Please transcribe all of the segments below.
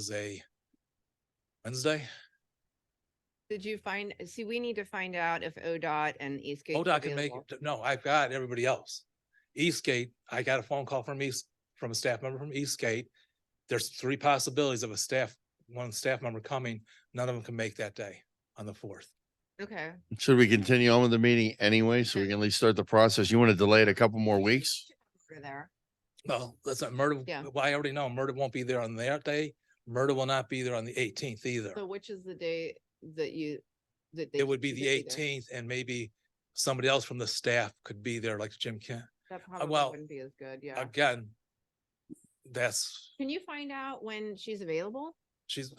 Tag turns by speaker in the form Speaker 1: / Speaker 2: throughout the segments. Speaker 1: is a Wednesday.
Speaker 2: Did you find, see, we need to find out if ODOT and Eastgate.
Speaker 1: ODOT can make, it. no, I've got everybody else. Eastgate, I got a phone call from East, from a staff member from Eastgate. There's three possibilities of a staff, one staff member coming. None of them can make that day on the fourth.
Speaker 2: Okay.
Speaker 3: Should we continue on with the meeting anyway, so we can at least start the process? You want to delay it a couple more weeks?
Speaker 2: Over there.
Speaker 1: Well, that's not Murder.
Speaker 2: Yeah.
Speaker 1: Well, I already know Murder won't be there on that day. Murder will not be there on the eighteenth either.
Speaker 2: So which is the day that you, that? they
Speaker 1: It would be
Speaker 2: should
Speaker 1: the
Speaker 2: there?
Speaker 1: eighteenth and maybe somebody else from the staff could be there like Jim Kent.
Speaker 2: That probably
Speaker 1: Uh, well,
Speaker 2: wouldn't be as good, yeah.
Speaker 1: Again, that's
Speaker 2: Can you find out when she's available?
Speaker 1: She's,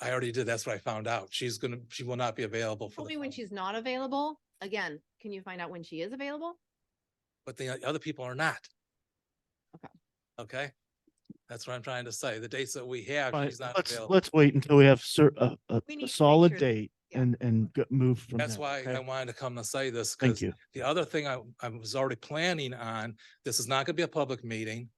Speaker 1: I already did. That's what I found out. She's gonna, she will not be available for
Speaker 2: Tell
Speaker 1: the.
Speaker 2: me when
Speaker 1: phone.
Speaker 2: she's not available. Again, can you find out when she is available?
Speaker 1: But the other people are not.
Speaker 2: Okay.
Speaker 1: Okay? That's what I'm trying to say. The dates that we have,
Speaker 4: Right,
Speaker 1: she's not
Speaker 4: let's,
Speaker 1: available.
Speaker 4: let's wait until we have cer- a, a-
Speaker 2: We need to
Speaker 4: a
Speaker 2: make
Speaker 4: solid
Speaker 2: sure that-
Speaker 4: date
Speaker 2: yeah.
Speaker 4: and, and go- move from there.
Speaker 1: That's why
Speaker 4: okay?
Speaker 1: I wanted to come and say this. 'cause
Speaker 4: Thank you.
Speaker 1: The other thing I, I was already planning on, this is not gonna be a public meeting.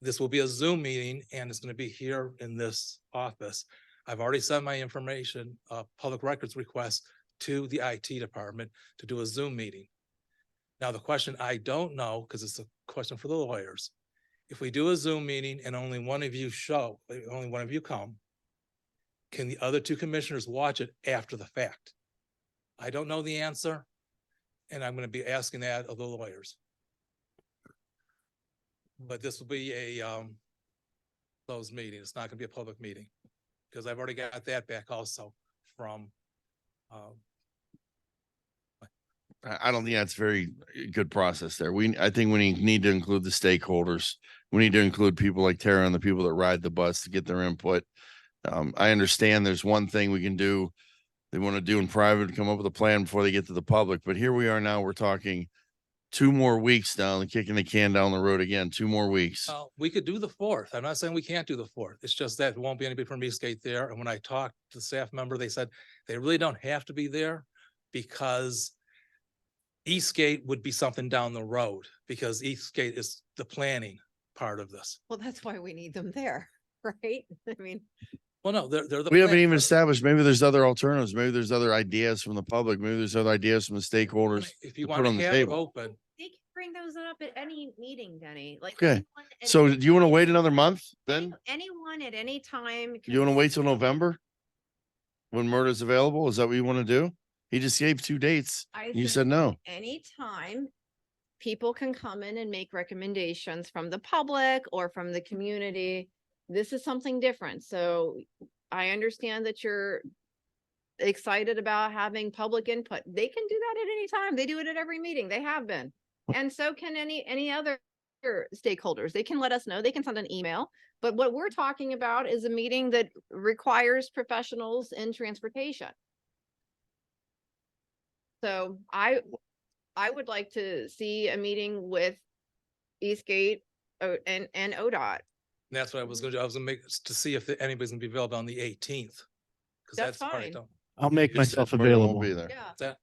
Speaker 1: This will be a Zoom meeting and it's gonna be here in this office. I've already sent my information, uh, public records request to the IT department to do a Zoom meeting. Now, the question I don't know, because it's a question for the lawyers. If we do a Zoom meeting and only one of you show, uh, only one of you come, can the other two commissioners watch it after the fact? I don't know the answer. And I'm gonna be asking that of the lawyers. But this will be a um closed meeting. It's not gonna be a public meeting. Because I've already got that back also from um
Speaker 3: I, I don't think that's very eh, good process there. We, I think we need- need to include the stakeholders. We need to include people like Tara and the people that ride the bus to get their input. Um, I understand there's one thing we can do. They want to do in private, come up with a plan before they get to the public, but here we are now, we're talking two more weeks down, kicking the can down the road again, two more weeks.
Speaker 1: Uh, we could do the fourth. I'm not saying we can't do the fourth. It's just that won't be anybody from Eastgate there. And when I talked to the staff member, they said they really don't have to be there because Eastgate would be something down the road because Eastgate is the planning part of this.
Speaker 2: Well, that's why we need them there, right? I mean,
Speaker 1: Well, no, they're, they're the.
Speaker 3: We haven't
Speaker 1: planning
Speaker 3: even
Speaker 1: part of it.
Speaker 3: established, maybe there's other alternatives, maybe there's other ideas from the public, maybe there's other ideas from the stakeholders.
Speaker 1: If you
Speaker 3: to
Speaker 1: want
Speaker 3: put
Speaker 1: to
Speaker 3: on the
Speaker 1: have it
Speaker 3: table.
Speaker 1: open,
Speaker 2: they can bring those up at any meeting, Denny, like.
Speaker 3: Okay,
Speaker 2: anyone at
Speaker 3: So
Speaker 2: any-
Speaker 3: do you want to wait another month then?
Speaker 2: Anyone at any time. can-
Speaker 3: You want to wait till November? When murder's available? Is that what you want to do? He just gave two dates.
Speaker 2: I
Speaker 3: You
Speaker 2: think-
Speaker 3: said no.
Speaker 2: anytime people can come in and make recommendations from the public or from the community. This is something different. So I understand that you're excited about having public input. They can do that at any time. They do it at every meeting. They have been. And so can any, any other stakeholders. They can let us know. They can send an email. But what we're talking about is a meeting that requires professionals in transportation. So I, I would like to see a meeting with Eastgate O- and, and ODOT.
Speaker 1: that's what I was gonna do. I was gonna make, to see if anybody's gonna be available on the eighteenth. Cause that's
Speaker 2: That's
Speaker 1: the part I
Speaker 2: fine.
Speaker 1: don't,
Speaker 4: I'll make
Speaker 3: You said
Speaker 4: myself
Speaker 3: Murdo won't
Speaker 4: available.
Speaker 3: Be there,
Speaker 2: Yeah,
Speaker 1: that,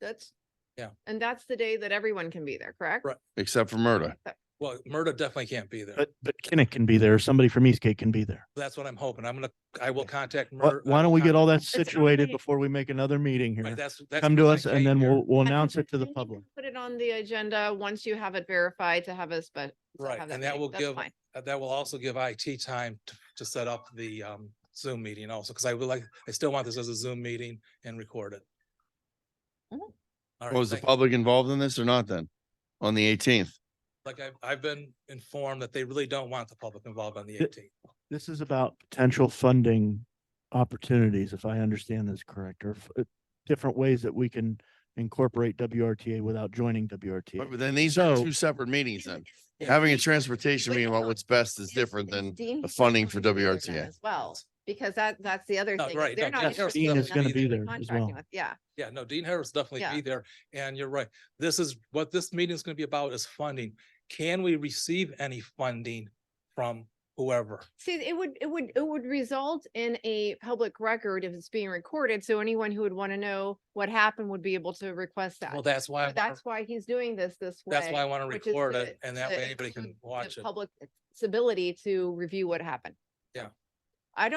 Speaker 2: that's.
Speaker 1: Yeah.
Speaker 2: And that's the day that everyone can be there, correct?
Speaker 1: Right.
Speaker 3: except for murder.
Speaker 1: well, Murdo definitely can't be there.
Speaker 4: But, but Kinnick can be there. Somebody from Eastgate can be there.
Speaker 1: That's what I'm hoping. I'm gonna, I will contact.
Speaker 4: Why,
Speaker 1: Murdo- I
Speaker 4: why
Speaker 1: will
Speaker 4: don't we get
Speaker 1: contact-
Speaker 4: all that
Speaker 2: only-
Speaker 4: situated before we make another meeting
Speaker 1: Right,
Speaker 4: here?
Speaker 1: that's, that's.
Speaker 4: Come to
Speaker 1: what I
Speaker 4: us and
Speaker 1: came
Speaker 4: then
Speaker 1: here.
Speaker 4: we'll, we'll
Speaker 2: And
Speaker 4: announce it to the
Speaker 2: then you can
Speaker 4: public.
Speaker 2: Put it on the agenda once you have it verified to have a spe- to
Speaker 1: Right,
Speaker 2: have
Speaker 1: and that
Speaker 2: meeting.
Speaker 1: will
Speaker 2: That's
Speaker 1: give,
Speaker 2: fine.
Speaker 1: uh, that will also give IT time to, to set up the, um, Zoom meeting also, because I would like, I still want this as a Zoom meeting and record it.
Speaker 2: Mhm.
Speaker 1: All right,
Speaker 3: Was the
Speaker 1: thank you.
Speaker 3: public involved in this or not then? On the eighteenth?
Speaker 1: Like I've, I've been informed that they really don't want the public involved on the
Speaker 4: Th-
Speaker 1: eighteenth.
Speaker 4: This is about potential funding opportunities, if I understand this correct, or f- uh, different ways that we can incorporate WRTA without joining WRTA.
Speaker 3: But then these are
Speaker 4: So-
Speaker 3: two separate meetings then.
Speaker 2: Is- is
Speaker 3: Having a
Speaker 2: Dean-
Speaker 3: transportation
Speaker 2: wait,
Speaker 3: meeting about
Speaker 2: no,
Speaker 3: what's best is different
Speaker 2: is
Speaker 3: than
Speaker 2: Dean
Speaker 3: the funding for
Speaker 2: going to be there then
Speaker 3: WRTA.
Speaker 2: As well, because that, that's the other
Speaker 1: No,
Speaker 2: thing.
Speaker 1: right,
Speaker 2: They're
Speaker 1: no,
Speaker 2: not
Speaker 1: Dean Harris
Speaker 2: interested
Speaker 4: Dean
Speaker 2: in
Speaker 4: is gonna
Speaker 1: be
Speaker 2: actually
Speaker 4: there as
Speaker 2: contracting
Speaker 4: well.
Speaker 2: with- Yeah,
Speaker 1: Yeah, no, Dean Harris definitely
Speaker 2: Yeah.
Speaker 1: be there, and you're right. This is what this meeting is gonna be about is funding. Can we receive any funding from whoever?
Speaker 2: see, it would, it would, it would result in a public record if it's being recorded. So anyone who would want to know what happened would be able to request that.
Speaker 1: Well, that's why, I
Speaker 2: So
Speaker 1: wanna-
Speaker 2: That's why he's doing this this way.
Speaker 1: that's why I want to
Speaker 2: which is
Speaker 1: record
Speaker 2: to-
Speaker 1: it, and that
Speaker 2: to
Speaker 1: way anybody can
Speaker 2: include the
Speaker 1: watch it.
Speaker 2: Public's ability to review what happened.
Speaker 1: Yeah.